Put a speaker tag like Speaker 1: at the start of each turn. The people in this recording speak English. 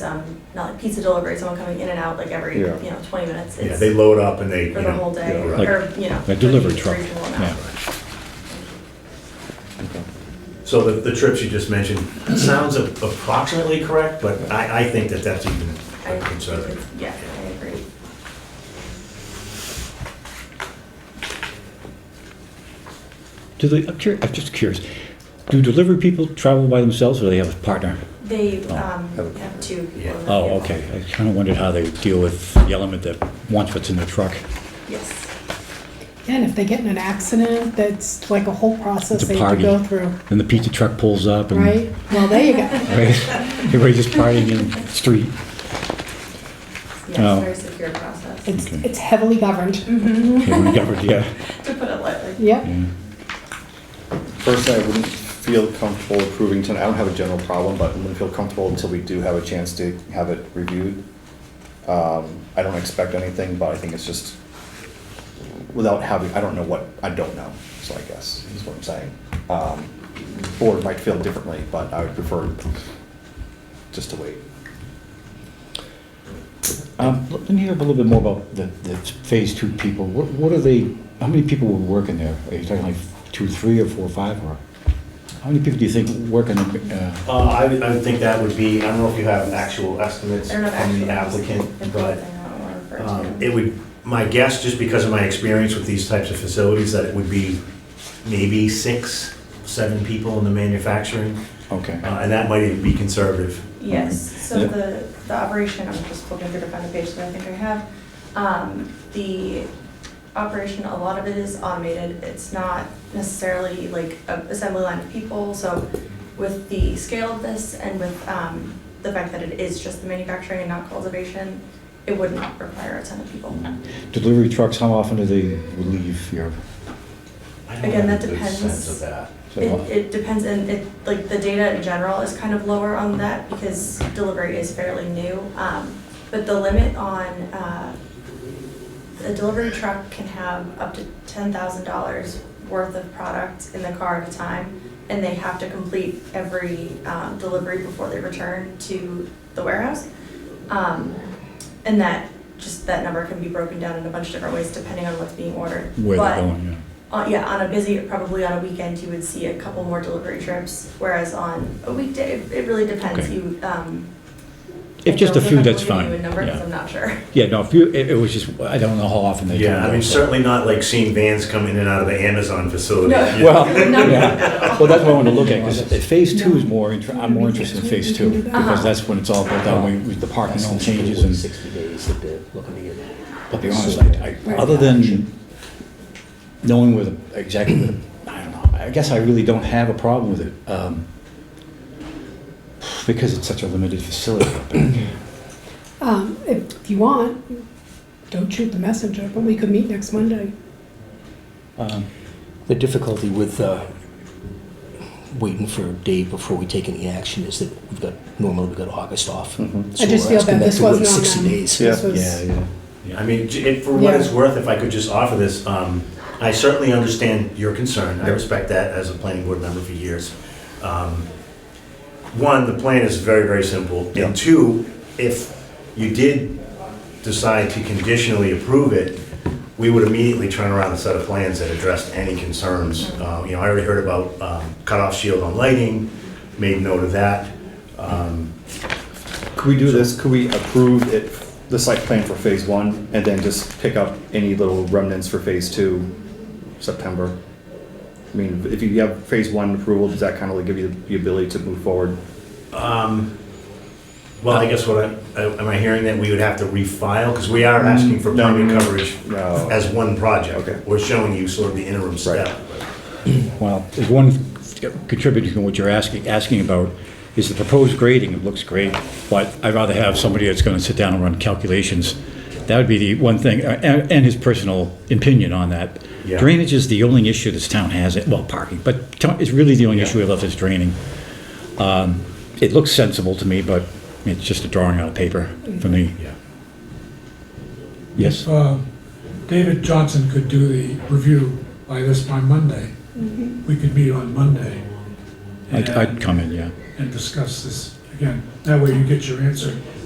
Speaker 1: um, not like pizza delivery, someone coming in and out like every, you
Speaker 2: Yeah.
Speaker 1: know, twenty minutes.
Speaker 3: Yeah,
Speaker 1: It's
Speaker 3: they load up and they, you
Speaker 1: For the
Speaker 3: know.
Speaker 1: whole day,
Speaker 3: yeah, right.
Speaker 2: Like
Speaker 1: or, you know.
Speaker 2: a delivery
Speaker 1: a
Speaker 2: truck,
Speaker 1: reasonable amount.
Speaker 2: yeah.
Speaker 3: So the, the trips you just mentioned sounds a- approximately correct, but I, I think that that's even
Speaker 1: I,
Speaker 3: concerning.
Speaker 1: yeah, I agree.
Speaker 2: Do they, I'm curious, I'm just curious, do delivery people travel by themselves or do they have a partner?
Speaker 1: They,
Speaker 2: Oh,
Speaker 1: um,
Speaker 2: okay.
Speaker 1: have two. people
Speaker 3: Yeah.
Speaker 1: in the
Speaker 2: Oh,
Speaker 1: vehicle.
Speaker 2: okay, I kind of wondered how they deal with the element that wants what's in the truck.
Speaker 1: Yes,
Speaker 4: Yeah, And if they get in an accident, that's like a whole process
Speaker 2: It's a
Speaker 4: they have to go
Speaker 2: party.
Speaker 4: through,
Speaker 2: Then the pizza truck pulls up and.
Speaker 4: right? Well, there you go.
Speaker 2: Right? Everybody just partying in the street.
Speaker 1: yes,
Speaker 2: Oh.
Speaker 1: very secure process, to
Speaker 4: It's,
Speaker 2: Okay.
Speaker 4: it's heavily governed.
Speaker 2: Okay, we covered, yeah.
Speaker 1: put it lightly.
Speaker 4: Yep.
Speaker 5: Personally, I wouldn't feel comfortable approving tonight. I don't have a general problem, but I wouldn't feel comfortable until we do have a chance to have it reviewed. Um, I don't expect anything, but I think it's just, without having, I don't know what, I don't know, so I guess, is what I'm saying. Um, Board might feel differently, but I would prefer just to wait.
Speaker 2: Um, let me hear a little bit more about the, the phase two people. What, what are they, how many people were working there? Are you talking like two, three, or four, or five, or? How many people do you think work in the, uh?
Speaker 3: Uh, I, would- I would think that would be, I don't know if you have actual estimates
Speaker 1: They're
Speaker 3: from
Speaker 1: not actually.
Speaker 3: the applicant, but um, it
Speaker 1: It
Speaker 3: would, my guess, just because of my experience with these types of facilities, that it would be maybe six, seven people in the manufacturing,
Speaker 2: Okay.
Speaker 3: uh, and that might even be conservative.
Speaker 1: Yes, so
Speaker 2: Yeah.
Speaker 1: the, the operation, I'm just looking through to find the page that I think I have. Um, the operation, a lot of it is automated, it's not necessarily like a assembly line of people, so with the scale of this and with, um, the fact that it is just the manufacturing and not cultivation, it would not require a ton of people.
Speaker 2: Delivery trucks, how often do they leave your,
Speaker 3: I don't
Speaker 1: Again,
Speaker 3: have
Speaker 1: that
Speaker 3: a good
Speaker 1: depends.
Speaker 3: Sense of that.
Speaker 1: It, it depends, and it, like, the data in general is kind of lower on that because delivery is fairly new. Um, but the limit on, uh, a delivery truck can have up to ten thousand dollars worth of product in the car at a time. And they have to complete every, um, delivery before they return to the warehouse. Um, and that, just that number can be broken down in a bunch of different ways depending on what's being ordered.
Speaker 2: where
Speaker 1: But-
Speaker 2: they're going, yeah?
Speaker 1: uh, yeah, on a busy, probably on a weekend, you would see a couple more delivery trips, whereas on a weekday, it- it really depends.
Speaker 2: Okay.
Speaker 1: You, um.
Speaker 2: If just a
Speaker 1: Joe's
Speaker 2: few,
Speaker 1: not
Speaker 2: that's
Speaker 1: gonna give
Speaker 2: fine.
Speaker 1: you a number, 'cause
Speaker 2: Yeah.
Speaker 1: I'm not sure.
Speaker 2: Yeah, no, if you, it, it was just, I don't know how often they do.
Speaker 3: Yeah, I
Speaker 2: that,
Speaker 3: mean,
Speaker 2: so-
Speaker 3: certainly not like seeing vans come in and out of the Amazon facility.
Speaker 1: No.
Speaker 3: You-
Speaker 2: Well,
Speaker 1: Not
Speaker 2: yeah, well, that's what I want to look at, because phase two is more, inter- I'm more
Speaker 4: No.
Speaker 2: interested in phase two, because
Speaker 1: Uh-huh.
Speaker 2: that's when it's all built out, we- with the parking
Speaker 6: That's
Speaker 2: all
Speaker 6: in
Speaker 2: changes and,
Speaker 6: Sixty days to bid, looking to get.
Speaker 2: I'll be honest, I, I, other than knowing where the, exactly, where the- I don't know, I guess I really don't have a problem with it, um, because it's such a limited facility. up there.
Speaker 4: Um, if you want, don't shoot the messenger, but we could meet next Monday.
Speaker 2: Um,
Speaker 6: The difficulty with uh, waiting for a day before we take any action is that we've got, normally we've got August off.
Speaker 4: Mm-hmm. I just feel bad this wasn't on them.
Speaker 6: Sixty days.
Speaker 5: Yeah.
Speaker 4: This was-
Speaker 2: Yeah, yeah, yeah.
Speaker 3: I mean, j- if- for what
Speaker 4: Yeah.
Speaker 3: it's worth, if I could just offer this, um, I certainly understand your concern. I respect that as a planning board member for years. Um, One, the plan is very, very simple.
Speaker 5: Yeah.
Speaker 3: And two, if you did decide to conditionally approve it, we would immediately turn around a set of plans that addressed any concerns. Uh, You know, I already heard about um, cutoff shield on lighting, made note of that. Um,
Speaker 5: Could we do this, could we approve it, the site plan for phase one, and then just pick up any little remnants for phase two, September? I mean, if you have phase one approval, does that kind of like give you the ability to move forward?
Speaker 3: Well, I guess what I, am I hearing that we would have to refile? Because we are asking for
Speaker 5: No,
Speaker 3: permit
Speaker 5: no, no.
Speaker 3: coverage
Speaker 5: No.
Speaker 3: as one project.
Speaker 5: Okay.
Speaker 3: We're showing you sort of the interim step.
Speaker 2: Well, there's one contributing to what you're asking, asking about is the proposed grading, it looks great, but I'd rather have somebody that's gonna sit down and run calculations. That would be the one thing, uh, and, and his personal opinion on that.
Speaker 3: Yeah.
Speaker 2: Drainage is the only issue this town has, well, parking, but to- it's really the only issue we left is draining. Um, It looks sensible to me, but it's just a drawing on paper for me,
Speaker 3: Yeah.
Speaker 2: yes?
Speaker 7: Uh, David Johnson could do the review by this, by Monday. We could meet on Monday
Speaker 2: I'd, I'd come in, yeah.
Speaker 7: and discuss this again, that way you get your answer.